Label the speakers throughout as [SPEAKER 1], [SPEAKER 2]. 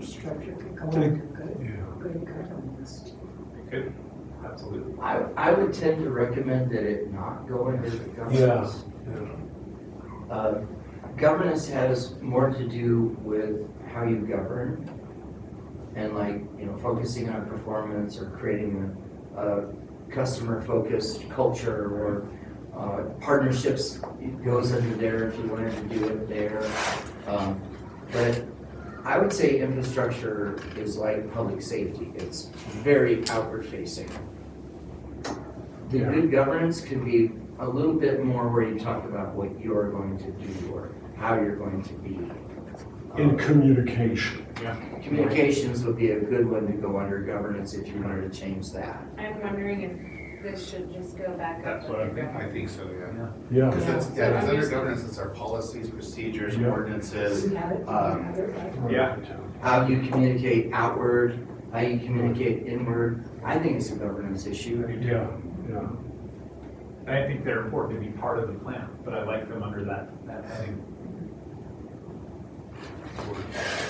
[SPEAKER 1] structure could go
[SPEAKER 2] Take-
[SPEAKER 1] under good,
[SPEAKER 2] Yeah.
[SPEAKER 1] good governance.
[SPEAKER 3] It could, absolutely.
[SPEAKER 4] I, I would tend to recommend that it not go under the governance.
[SPEAKER 2] Yeah, yeah,
[SPEAKER 4] Uh, Governance has more to do with how you govern and like, you know, focusing on performance or creating a, a customer-focused culture or uh, partnerships goes under there if you wanted to do it there. Um, But I would say infrastructure is like public safety. It's very outward-facing. The
[SPEAKER 2] Yeah.
[SPEAKER 4] good governance could be a little bit more where you talk about what you're going to do or how you're going to be.
[SPEAKER 2] in
[SPEAKER 4] Um,
[SPEAKER 2] communication.
[SPEAKER 4] Communications would be a good one to go under governance if you wanted to change that.
[SPEAKER 5] I'm wondering if this should just go back up.
[SPEAKER 3] That's what I'm thinking.
[SPEAKER 6] I think so, yeah.
[SPEAKER 2] Yeah,
[SPEAKER 6] Because that's, yeah, because under governance, it's our policies, procedures,
[SPEAKER 2] Yeah.
[SPEAKER 6] ordinances.
[SPEAKER 1] We have it, we
[SPEAKER 6] Um,
[SPEAKER 1] have it, right?
[SPEAKER 3] Yeah.
[SPEAKER 4] How you communicate outward, how you communicate inward, I think it's a governance issue.
[SPEAKER 2] yeah, yeah.
[SPEAKER 3] And I think they're important to be part of the plan, but I like them under that, that heading.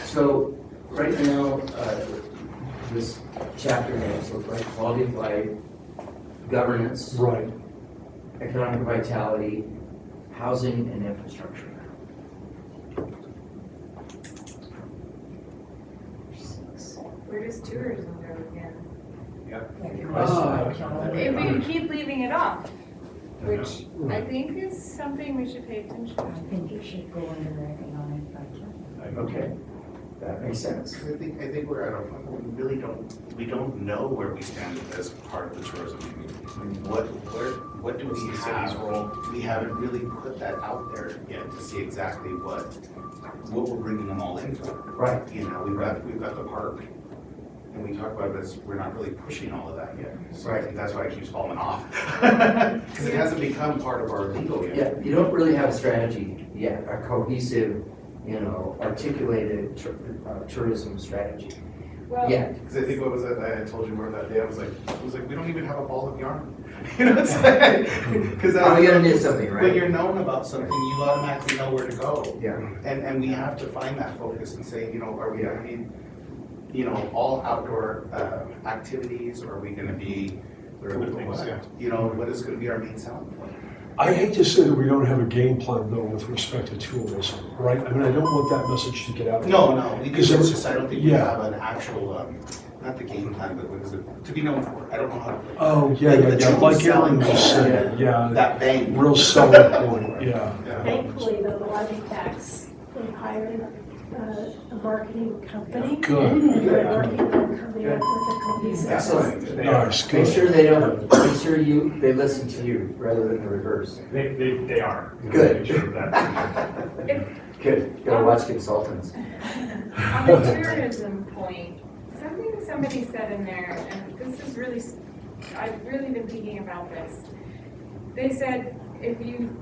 [SPEAKER 4] So right now, uh, this chapter names look like quality of life, governance,
[SPEAKER 2] Right,
[SPEAKER 4] economic vitality, housing and infrastructure.
[SPEAKER 1] Six.
[SPEAKER 5] Where does tourism go again?
[SPEAKER 1] Like your
[SPEAKER 2] Ah.
[SPEAKER 1] restaurant, calendar.
[SPEAKER 5] If we keep leaving it off, which I
[SPEAKER 2] right.
[SPEAKER 5] think is something we should pay attention
[SPEAKER 1] I
[SPEAKER 5] to.
[SPEAKER 1] think it should go under the economic budget.
[SPEAKER 4] Okay, that makes sense.
[SPEAKER 6] I think, I think we're at a point where we really don't, we don't know where we stand as part of the tourism community. What, where, what do we have? We haven't really put that out there yet to see exactly what, what we're bringing them all in for.
[SPEAKER 4] Right,
[SPEAKER 6] You know, we've got, we've got the park, and we talk about this, we're not really pushing all of that yet. So I think that's why it keeps falling off. Because it hasn't become part of our legal yet.
[SPEAKER 4] yeah, you don't really have a strategy yet, a cohesive, you know, articulated tur- uh, tourism strategy
[SPEAKER 5] Well,
[SPEAKER 4] yet.
[SPEAKER 6] Because I think what was it, I had told you more that day, I was like, I was like, we don't even have a ball of yarn. You know what I'm saying? Because
[SPEAKER 4] Oh, we gotta do something,
[SPEAKER 6] when
[SPEAKER 4] right?
[SPEAKER 6] you're known about something, you automatically know where to go.
[SPEAKER 4] Yeah,
[SPEAKER 6] And, and we have to find that focus and say, you know, are we, I mean, you know, all outdoor uh, activities, or are we gonna be, or
[SPEAKER 3] Other things, yeah.
[SPEAKER 6] what? You know, what is gonna be our main selling point?
[SPEAKER 2] I hate to say that we don't have a game plan though with respect to tourism, right? I mean, I don't want that message to get out.
[SPEAKER 6] No, no, we do,
[SPEAKER 2] Because
[SPEAKER 6] it's
[SPEAKER 2] there-
[SPEAKER 6] just, I don't think we
[SPEAKER 2] yeah.
[SPEAKER 6] have an actual, um, not the game plan, but what is it, to be known for, I don't know how to. put it.
[SPEAKER 2] Oh, yeah,
[SPEAKER 6] Like
[SPEAKER 2] yeah,
[SPEAKER 6] the
[SPEAKER 2] yeah,
[SPEAKER 6] true
[SPEAKER 2] like Aaron
[SPEAKER 6] selling
[SPEAKER 2] was saying, yeah,
[SPEAKER 6] That bang.
[SPEAKER 2] real selling point, yeah.
[SPEAKER 6] Yeah.
[SPEAKER 7] Thankfully, the lodging tax, we hired uh, a marketing company.
[SPEAKER 2] Good,
[SPEAKER 7] We're working on coming up with a cohesive
[SPEAKER 4] excellent.
[SPEAKER 3] They are,
[SPEAKER 2] nice, good.
[SPEAKER 4] Make sure they don't, make sure you, they listen to you rather than the reverse.
[SPEAKER 3] they, they, they are.
[SPEAKER 4] Good.
[SPEAKER 3] Sure of that.
[SPEAKER 4] Good, gotta watch consultants.
[SPEAKER 5] on the tourism point, something somebody said in there, and this is really, s- I've really been thinking about this. They said, if you,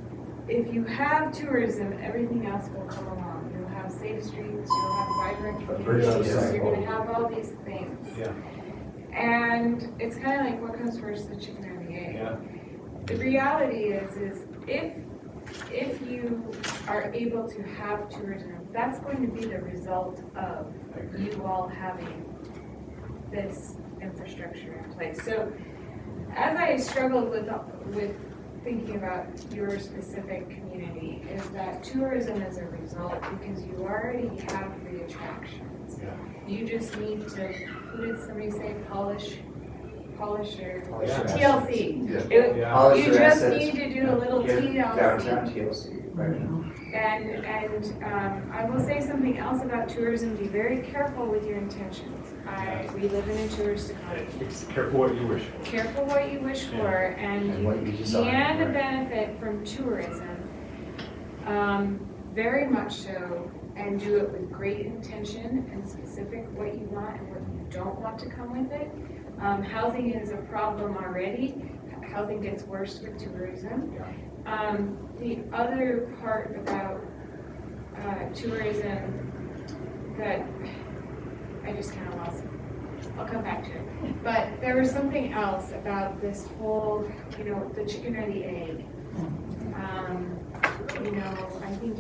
[SPEAKER 5] if you have tourism, everything else will come along. You'll have safe streets, you'll have vibrant communities,
[SPEAKER 4] virtuous
[SPEAKER 5] you're
[SPEAKER 4] cycle.
[SPEAKER 5] gonna have all these things.
[SPEAKER 3] Yeah.
[SPEAKER 5] And it's kinda like, what comes first, the chicken or the egg?
[SPEAKER 3] Yeah.
[SPEAKER 5] The reality is, is if, if you are able to have tourism, that's going to be the result of
[SPEAKER 3] I agree.
[SPEAKER 5] you all having this infrastructure in place. So as I struggled with, with thinking about your specific community, is that tourism is a result because you already have the attractions.
[SPEAKER 3] Yeah.
[SPEAKER 5] You just need to, who did somebody say, polish, polish your
[SPEAKER 4] Polish your assets.
[SPEAKER 5] TLC?
[SPEAKER 6] Yeah.
[SPEAKER 5] It-
[SPEAKER 4] Polish
[SPEAKER 5] you
[SPEAKER 4] your
[SPEAKER 5] just
[SPEAKER 4] assets.
[SPEAKER 5] need to do a little
[SPEAKER 4] Here, Downtown
[SPEAKER 5] TLC.
[SPEAKER 4] TLC, right now.
[SPEAKER 5] And, and um, I will say something else about tourism, be very careful with your intentions. I, we live in a tourist economy.
[SPEAKER 3] It's Careful what you wish for.
[SPEAKER 5] Careful what you wish for, and
[SPEAKER 4] And what you
[SPEAKER 5] you
[SPEAKER 4] desire,
[SPEAKER 5] can
[SPEAKER 4] right.
[SPEAKER 5] benefit from tourism, um, very much so, and do it with great intention and specific what you want and what you don't want to come with it. Um, Housing is a problem already, housing gets worse with tourism. Um, The other part about uh, tourism that I just kind of lost, I'll come back to it. But there was something else about this whole, you know, the chicken or the egg. Um, You know, I think